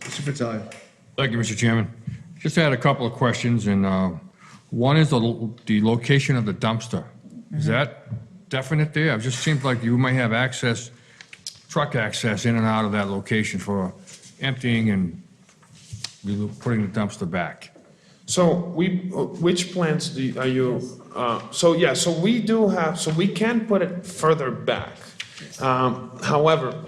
Mr. Fratelli. Thank you, Mr. Chairman. Just had a couple of questions, and uh, one is the lo- the location of the dumpster. Is that definite there? It just seems like you might have access, truck access in and out of that location for emptying and relo- putting the dumpster back. So we, which plans do, you- are you, uh, so yeah, so we do have, so we can put it further back. Um, However,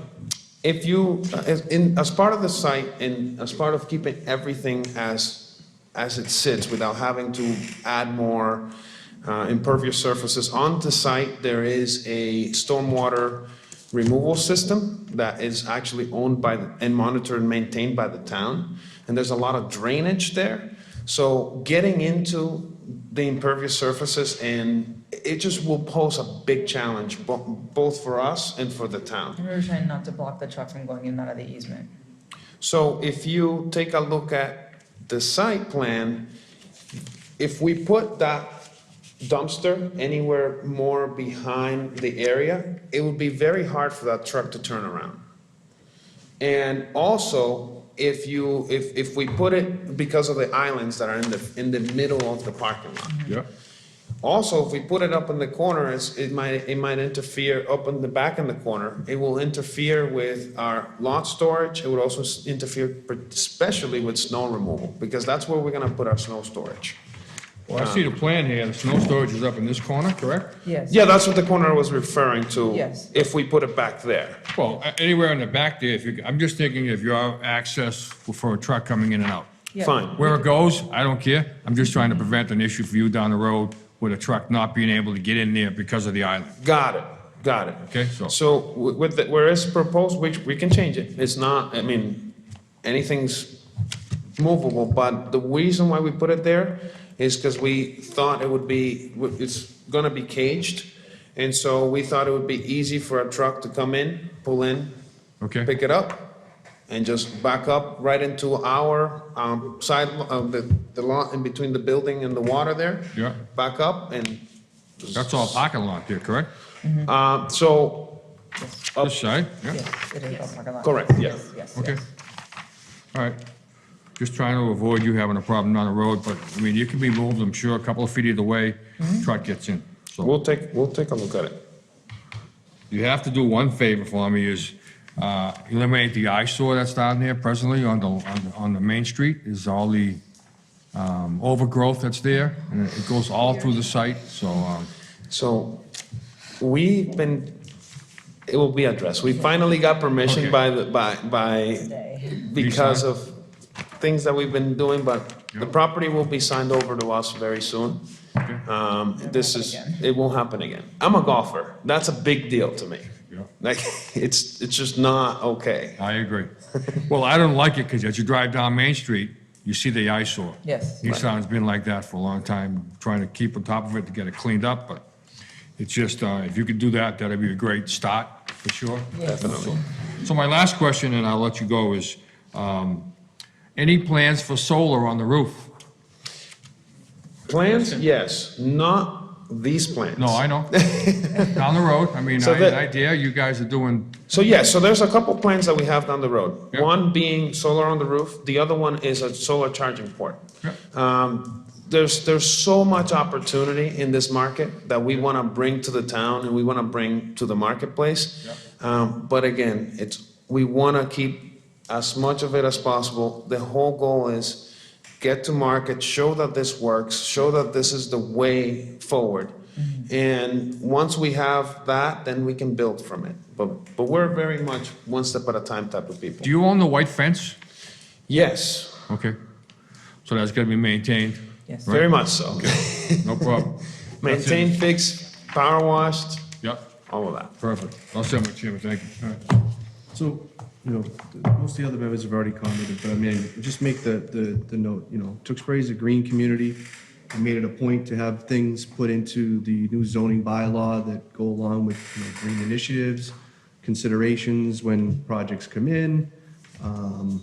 if you, as, in, as part of the site and as part of keeping everything as, as it sits without having to add more uh, impervious surfaces on the site, there is a stormwater removal system that is actually owned by the- and monitored and maintained by the town. And there's a lot of drainage there. So getting into the impervious surfaces and it just will pose a big challenge, bo- both for us and for the town. We were trying not to block the truck from going in and out of the easement. So if you take a look at the site plan, if we put that dumpster anywhere more behind the area, it would be very hard for that truck to turn around. And also, if you, if, if we put it because of the islands that are in the, in the middle of the parking lot. Yeah. Also, if we put it up in the corner, it's, it might, it might interfere up in the back in the corner. It will interfere with our lot storage. It would also s- interfere especially with snow removal, because that's where we're gonna put our snow storage. Well, I see the plan here, the snow storage is up in this corner, correct? Yes. Yeah, that's what the corner was referring to. Yes. If we put it back there. Well, a- anywhere in the back there, if you, I'm just thinking if you have access for a truck coming in and out. Yeah. Fine. Where it goes, I don't care. I'm just trying to prevent an issue for you down the road with a truck not being able to get in there because of the island. Got it, got it. Okay, so- So wi- with, the- where it's proposed, which we can change it, it's not, I mean, anything's movable, but the reason why we put it there is because we thought it would be, w- it's gonna be caged, and so we thought it would be easy for a truck to come in, pull in, Okay? pick it up, and just back up right into our um, side of the, the lot in between the building and the water there. Yeah. Back up and. That's all parking lot there, correct? Uh, So This side, yeah? Yes, it is all parking lot. Correct, yeah. Yes, yes, Okay. yes. All right. Just trying to avoid you having a problem down the road, but, I mean, you can be moved, I'm sure, a couple of feet either way, truck gets in. So We'll take, we'll take a look at it. you have to do one favor for me is uh, eliminate the eyesore that's down there presently on the, on the- on the main street is all the um, overgrowth that's there, and it goes all through the site, so, um, So we've been, it will be addressed. We finally got permission by, the by, by, Today. because of things that we've been doing, but the Yep. property will be signed over to us very soon. Okay. Um, This is, happen it won't happen again. I'm a golfer. That's a big deal to me. Yeah. Like, it's, it's just not okay. I agree. Well, I don't like it because as you drive down Main Street, you see the eyesore. Yes. Easttown's been like that for a long time, trying to keep on top of it to get it cleaned up, but it's just, uh, if you could do that, that'd be a great start, for sure. Definitely. So my last question, and I'll let you go, is, um, any plans for solar on the roof? Plans, yes, not these plans. No, I know. Down the road, I mean, So I had that- an idea, you guys are doing, So yeah, so there's a couple plans that we have down the road. Yeah. One being solar on the roof, the other one is a solar charging port. Yeah. Um, There's, there's so much opportunity in this market that we want to bring to the town and we want to bring to the marketplace. Um, But again, it's, we want to keep as much of it as possible. The whole goal is get to market, show that this works, show that this is the way forward. Mm-hmm. And once we have that, then we can build from it. But, but we're very much one step at a time type of people. do you own the white fence? Yes, Okay. So that's gonna be maintained, Yes. very much so. no problem. That's it. Maintain, fix, power washed, Yep. all of that. Perfect. I'll send my chairman, thank you. All right. So, you know, the- most of the other members have already commented, but I mean, just make the, the, the note, you know, Tewksbury is a green community. We made it a point to have things put into the new zoning bylaw that go along with, you know, green initiatives, considerations when projects come in. Um,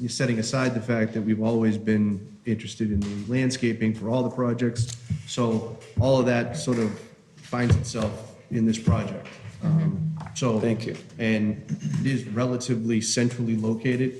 you're setting aside the fact that we've always been interested in the landscaping for all the projects. So all of that sort of finds itself in this project. Um, So. Thank you. And it is relatively centrally located.